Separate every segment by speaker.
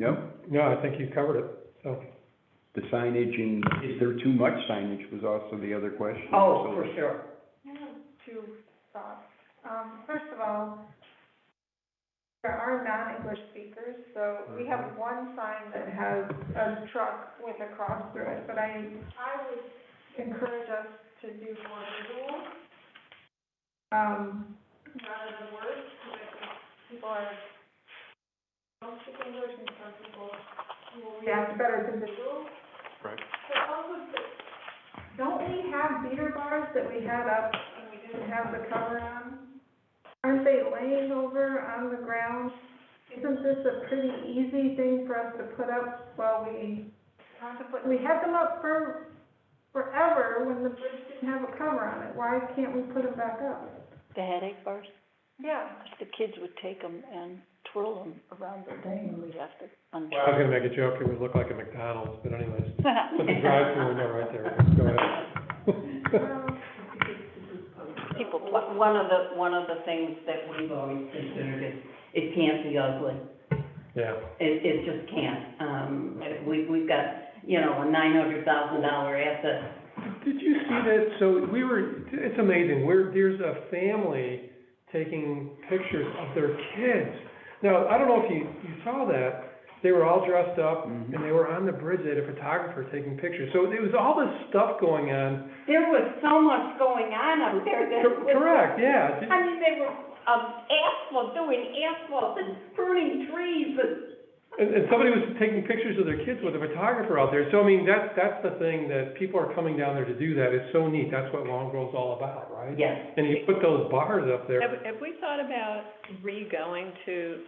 Speaker 1: No,
Speaker 2: No, I think you covered it, so.
Speaker 1: the signage and is there too much signage was also the other question.
Speaker 3: Oh,
Speaker 1: So-
Speaker 3: for sure.
Speaker 4: I have two thoughts. Um, first of all, there are non-English speakers, so we have one sign that has a truck with a cross through it, but I, I would encourage us to do more visual, um, rather than words, because I think people are, don't speak English, and some people will react better to visual.
Speaker 2: Right.
Speaker 4: But also, don't we have beer bars that we had up and we didn't have the cover on? Aren't they laying over on the ground? Isn't this a pretty easy thing for us to put up while we contemplate? We had them up for forever when the bridge didn't have a cover on it. Why can't we put them back up?
Speaker 5: the headache bars,
Speaker 4: Yeah.
Speaker 5: 'cause the kids would take them and twirl them around the thing, and we'd have to
Speaker 2: Well, I was
Speaker 5: untie.
Speaker 2: gonna make a joke, it would look like a McDonald's, but anyways, put the drive-through
Speaker 5: them
Speaker 2: in there right there, go ahead.
Speaker 4: Um,
Speaker 5: People pluck
Speaker 3: One one of the, one of the things that we've always considered is, it can't be ugly.
Speaker 2: Yeah,
Speaker 3: It, it just can't. Um, we, we've got, you know, a nine hundred thousand dollar asset.
Speaker 2: Did you see that, so we were, it's amazing, we're, there's a family taking pictures of their kids. Now, I don't know if you, you saw that, they were all dressed up, and
Speaker 1: Mhm.
Speaker 2: they were on the bridge, they had a photographer taking pictures. So there was all this stuff going on.
Speaker 3: There was so much going on up there that
Speaker 2: Cor-
Speaker 3: was.
Speaker 2: Correct, yeah. Did-
Speaker 3: I mean, they were, um, asphalt, doing asphalt and burning trees and.
Speaker 2: And, and somebody was taking pictures of their kids with a photographer out there, so I mean, that, that's the thing, that people are coming down there to do that, it's so neat, that's what Longgrove's all about, right?
Speaker 3: Yes.
Speaker 2: And you put those bars up there,
Speaker 6: Have, have we thought about re-going to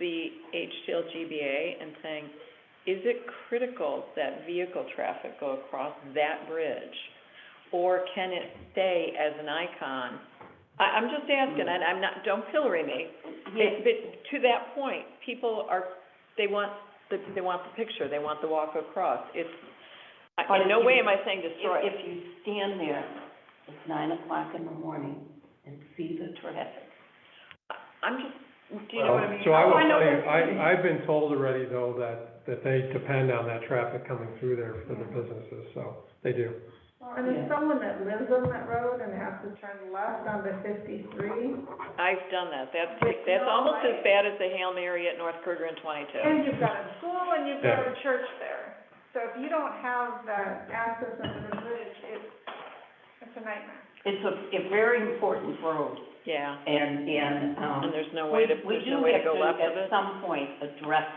Speaker 6: the HTL GBA and saying, is it critical that vehicle traffic go across that bridge? Or can it stay as an icon? I, I'm just asking, and I'm not, don't pillory me,
Speaker 3: Yeah,
Speaker 6: but to that point, people are, they want the, they want the picture, they want the walk across. It's, I- in no way am I saying destroy
Speaker 3: If,
Speaker 6: it.
Speaker 3: if you stand there at nine o'clock in the morning and see the traffic.
Speaker 6: I'm just, do you know what I mean?
Speaker 2: So I will
Speaker 3: Oh, I know
Speaker 2: tell you,
Speaker 3: what you mean.
Speaker 2: I, I've been told already though, that, that they depend on that traffic coming through there for their businesses, so, they do.
Speaker 4: And
Speaker 3: Yeah.
Speaker 4: if someone that lives on that road and has to turn left onto fifty-three,
Speaker 6: I've done that, that's,
Speaker 4: But
Speaker 6: that's
Speaker 4: no,
Speaker 6: almost
Speaker 4: I-
Speaker 6: as bad as the Hail Mary at North Kruger and twenty-two.
Speaker 4: And you've got a school and you've got a church there. So if you don't have that access into the bridge, it's, it's a nightmare.
Speaker 3: It's a, a very important road
Speaker 6: Yeah,
Speaker 3: and, and, um.
Speaker 6: and there's no way to,
Speaker 3: We-
Speaker 6: there's no way to go left
Speaker 3: We do have
Speaker 6: of it.
Speaker 3: to, at some point, address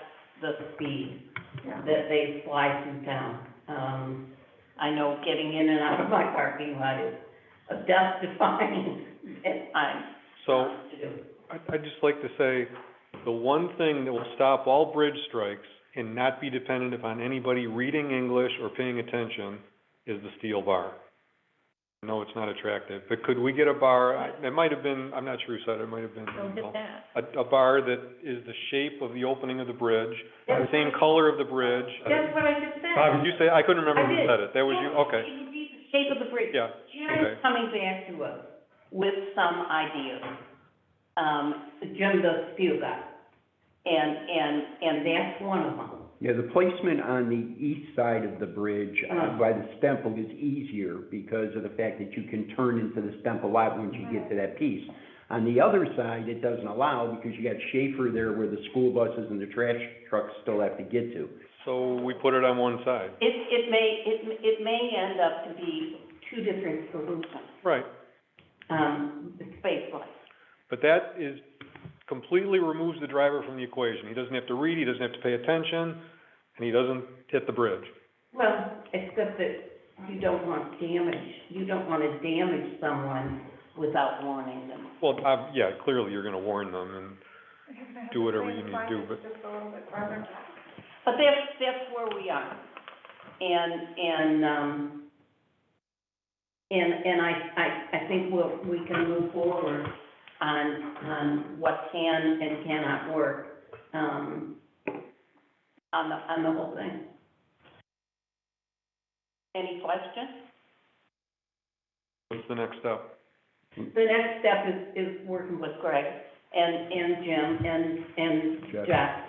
Speaker 3: the speed
Speaker 4: Yeah.
Speaker 3: that they fly through town. Um, I know getting in and out of my parking lot is a death defying at times.
Speaker 7: So uh, I- I'd just like to say, the one thing that will stop all bridge strikes and not be dependent upon anybody reading English or paying attention is the steel bar. No, it's not attractive, but could we get a bar, I- it might have been, I'm not sure who said it, it might have been,
Speaker 6: Hit that.
Speaker 7: a, a bar that is the shape of the opening of the bridge, the same color of the bridge.
Speaker 3: That's what I just said.
Speaker 7: Did you say, I couldn't remember
Speaker 3: I
Speaker 7: who
Speaker 3: did.
Speaker 7: said it, that was you, okay,
Speaker 3: It would be the shape of the bridge.
Speaker 7: yeah,
Speaker 3: Jim is
Speaker 7: Okay.
Speaker 3: coming back to us with some ideas, um, Jim the steel guy. And, and, and that's one of them.
Speaker 1: Yeah, the placement on the east side of the bridge uh,
Speaker 3: Mm.
Speaker 1: by the Stemple is easier because of the fact that you can turn into the Stemple lot once you get to that piece. On the other side, it doesn't allow because you got Schaefer there where the school buses and the trash trucks still have to get to.
Speaker 7: so we put it on one side,
Speaker 3: It, it may, it, it may end up to be two different solutions,
Speaker 7: right.
Speaker 3: um, spacewise.
Speaker 7: But that is, completely removes the driver from the equation. He doesn't have to read, he doesn't have to pay attention, and he doesn't hit the bridge.
Speaker 3: Well, except that you don't want damage, you don't wanna damage someone without warning them.
Speaker 7: Well, ob- yeah, clearly you're gonna warn them, and
Speaker 4: You're gonna have
Speaker 7: Do
Speaker 4: to
Speaker 7: whatever
Speaker 4: plan
Speaker 7: you need to do,
Speaker 4: signage Just a little bit farther back.
Speaker 3: But that's, that's where we are. And, and, um, and, and I, I, I think we'll, we can move forward on, on what can and cannot work, um, on the, on the whole thing. Any questions?
Speaker 7: what's the next step?
Speaker 3: The next step is, is working with Greg and, and Jim and, and
Speaker 1: Jeff.
Speaker 3: Jeff